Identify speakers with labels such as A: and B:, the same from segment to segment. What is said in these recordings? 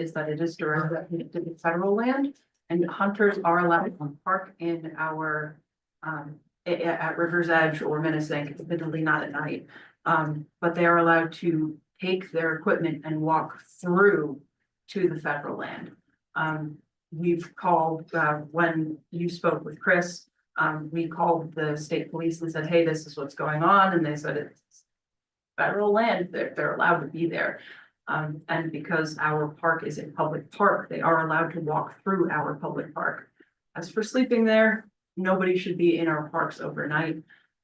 A: is that it is directly to the federal land. And hunters are allowed to park in our, um, a- a- at, River's Edge or Menacing, admittedly not at night. Um, but they are allowed to take their equipment and walk through to the federal land. Um, we've called, uh, when you spoke with Chris, um, we called the state police and said, hey, this is what's going on, and they said it's federal land, they're, they're allowed to be there. Um, and because our park is a public park, they are allowed to walk through our public park. As for sleeping there, nobody should be in our parks overnight.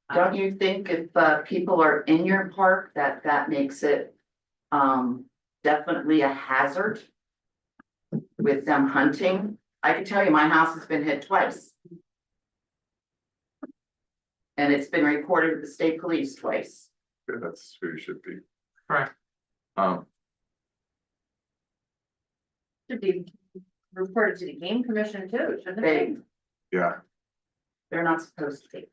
A: Um,
B: Don't you think if uh people are in your park, that that makes it um definitely a hazard? With them hunting, I can tell you, my house has been hit twice. And it's been reported to the state police twice.
C: Yeah, That's who you should be.
D: Correct.
C: Um,
E: Should be reported to the game commission too, shouldn't it?
B: They,
E: be?
C: yeah,
B: they're not supposed to be.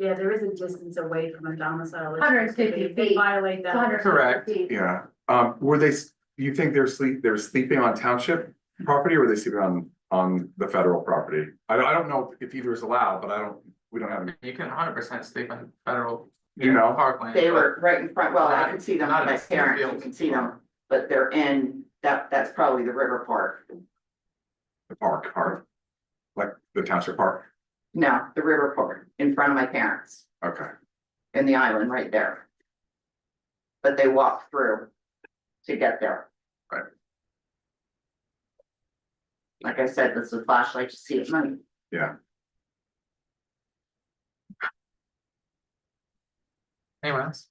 A: Yeah, there is a distance away from a domicile.
E: 150
A: If they
E: feet.
A: Violate that.
D: Correct.
C: yeah, um, were they, s- you think they're sleep, they're sleeping on township property or were they sleeping on, on the federal property? I don't, I don't know if either is allowed, but I don't, we don't have,
D: You can hundred percent sleep in federal.
C: You know.
D: Parkland.
B: They
D: but
B: were right in front, well, I
D: Not-
B: can see them,
D: not
B: my
D: in the
B: parents, you
D: field.
B: can see them, but they're in, that that's probably the river park.
C: the park, park. Like the township park,
B: No, the river park in front of my parents.
C: okay,
B: in the island right there. But they walk through to get there.
C: Right.
B: Like I said, this is flashlight to see it money.
D: Anyone else?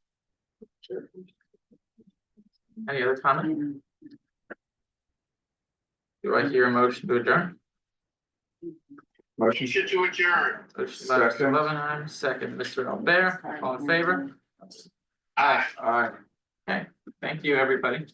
D: Any other comment? Do I hear a motion to adjourn?
C: motion,
F: Motion to adjourn.
D: Motion by Mr.
C: Second.
D: Loveenheim, second, Mr. Albert, all in favor?
F: Aye.
C: aye.
D: Thank you, everybody.